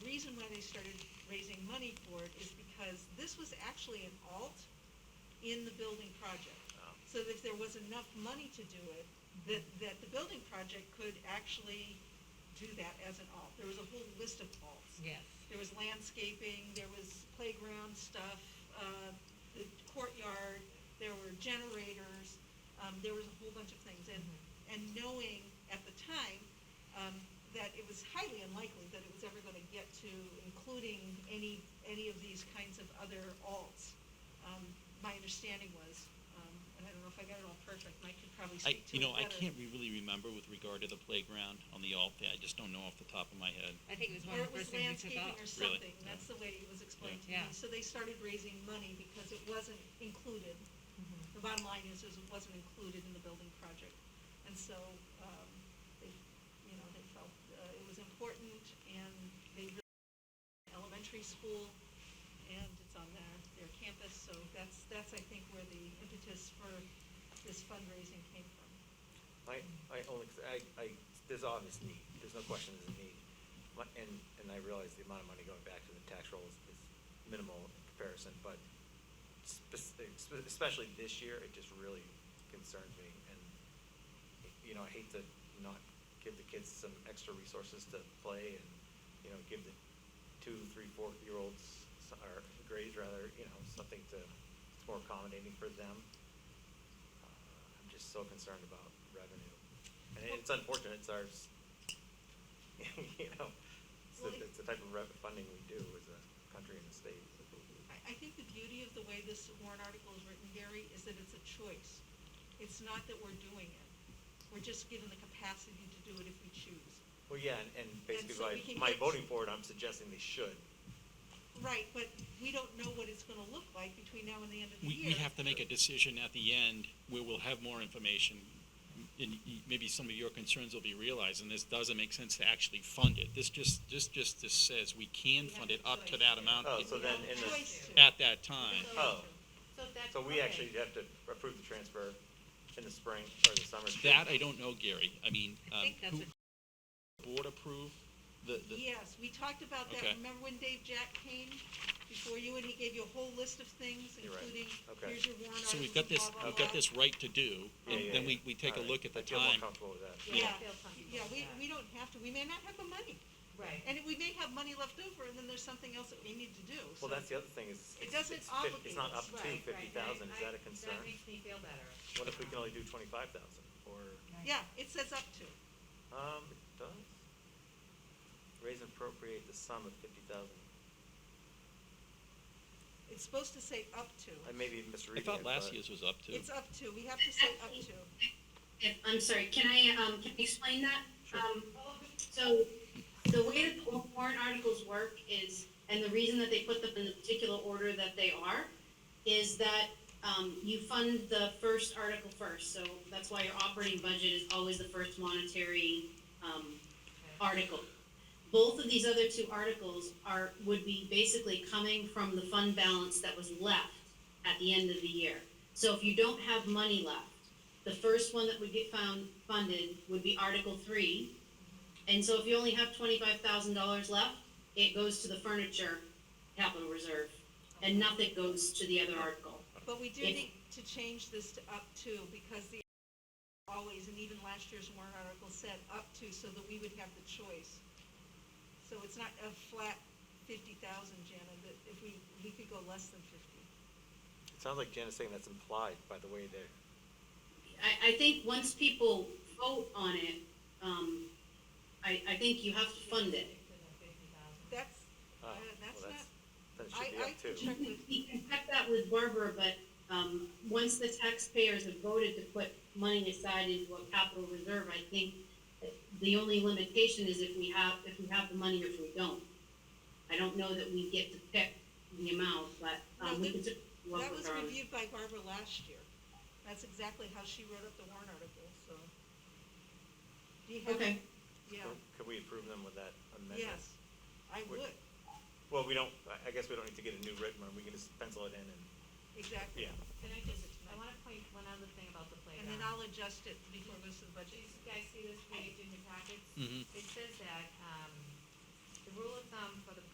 really started raising money for it is because this was actually an alt in the building project. Oh. So if there was enough money to do it, that, that the building project could actually do that as an alt. There was a whole list of alts. Yes. There was landscaping, there was playground stuff, uh, the courtyard, there were generators, um, there was a whole bunch of things. And, and knowing at the time, um, that it was highly unlikely that it was ever gonna get to including any, any of these kinds of other alts. Um, my understanding was, um, and I don't know if I got it all perfect, Mike could probably I, speak to it you better. know, I can't re- really remember with regard to the playground on the alt, I just don't know off the top of my head. I think it was one Or of the it first was things we took landscaping off. or Really? something, that's the way it was explained to me. Yeah. So they started raising money because it wasn't included. The bottom line is, is it wasn't included in the building project. And so, um, they, you know, they felt, uh, it was important and they really, elementary school, and it's on their, their campus, so that's, that's, I think, where the impetus for this fundraising came from. I, I only, I, I, there's obvious need, there's no question there's a need. My- And, and I realize the amount of money going back to the tax roll is, is minimal in comparison, but spec- spe- especially this year, it just really concerns me. And, you know, I hate to not give the kids some extra resources to play and, you know, give the two, three, four-year-olds, s- or grades rather, you know, something to, it's more accommodating for them. Uh, I'm just so concerned about revenue. And it's unfortunate, it's ours, you know, it's the, it's the type of rev- funding we do as a country and a state. I, I think the beauty of the way this warrant article is written, Gary, is that it's a choice. It's not that we're doing it. We're just given the capacity to do it if we choose. Well, yeah, and, and basically so by, we can my get- voting for it, I'm suggesting they should. Right, but we don't know what it's gonna look like between now and the end of the We, year. we have to make a decision at the end where we'll have more information. And y- maybe some of your concerns will be realized, and this doesn't make sense to actually fund it. This just, this just, this says we can We have fund it the up to choice. that amount Oh, in- so We then have in a the- choice to. at that time. There's Oh. always a- So that's. So we okay. actually have to approve the transfer in the spring or the summer. too. That I don't know, Gary. I mean, I um, think that's who, what, board approve the, the, Yes, we talked about that, Okay. remember when Dave Jack came before you and he gave you a whole list of things, You're right. including, Okay. here's your warrant so articles, we've got this, blah, blah, we've got blah. this right to do, Yeah, and yeah, then we, yeah. we take a All right. look at the I feel more time. comfortable with that. Yeah. Yeah, Feel comfortable yeah, with we, that. we don't have to, we may not have the money. right. And we may have money left over, and then there's something else that we need to do, so. Well, that's the other thing is. It it's- doesn't it's fif- obligate It's not up us, to Right, right. fifty thousand, is I- that a I- concern? That makes me feel better. What if we can only do twenty-five thousand or? Yeah, it says up to. Um, it does. Raise and appropriate the sum of fifty thousand. It's supposed to say up to. I may be I misreading it, thought last but- year's was up to. It's up to, we have to say up to. If- I'm sorry, can I, um, can I explain that? Sure. Um, so, the way that the warrant articles work is, and the reason that they put them in the particular order that they are, is that, um, you fund the first article first, so that's why your operating budget is always the first monetary, um, article. Both of these other two articles are, would be basically coming from the fund balance that was left at the end of the year. So if you don't have money left, the first one that would get found, funded would be Article three. And so if you only have twenty-five thousand dollars left, it goes to the furniture capital reserve, and nothing goes to the other article. But we do If- need to change this to up to, because the, always, and even last year's warrant article said up to, so that we would have the choice. So it's not a flat fifty thousand, Jana, that if we, we could go less than fifty. It sounds like Jen is saying that's implied by the way they're, I, I think once people vote on it, um, I, I think you have to fund it. That's, uh, oh, that's well, not, that's, then it I, should be I can up too. check with, We can check that with Barbara, but, um, once the taxpayers have voted to put money aside into a capital reserve, I think the only limitation is if we have, if we have the money or if we don't. I don't know that we get to pick the amount, but, No, um, we that- can just work that was with her on it. reviewed by Barbara last year. That's exactly how she wrote up the warrant article, so. Do you have? Okay. Yeah, Could we approve them with that amendment? yes, I Would- would, Well, we don't, I, I guess we don't need to get a new written one, we can just pencil it in and, exactly. yeah. Can I just, I wanna um, point one other thing about the And then playground. I'll adjust it before it goes to the Do budget. you guys see this page in your packets? Mhm. It says that, um, the rule of thumb for the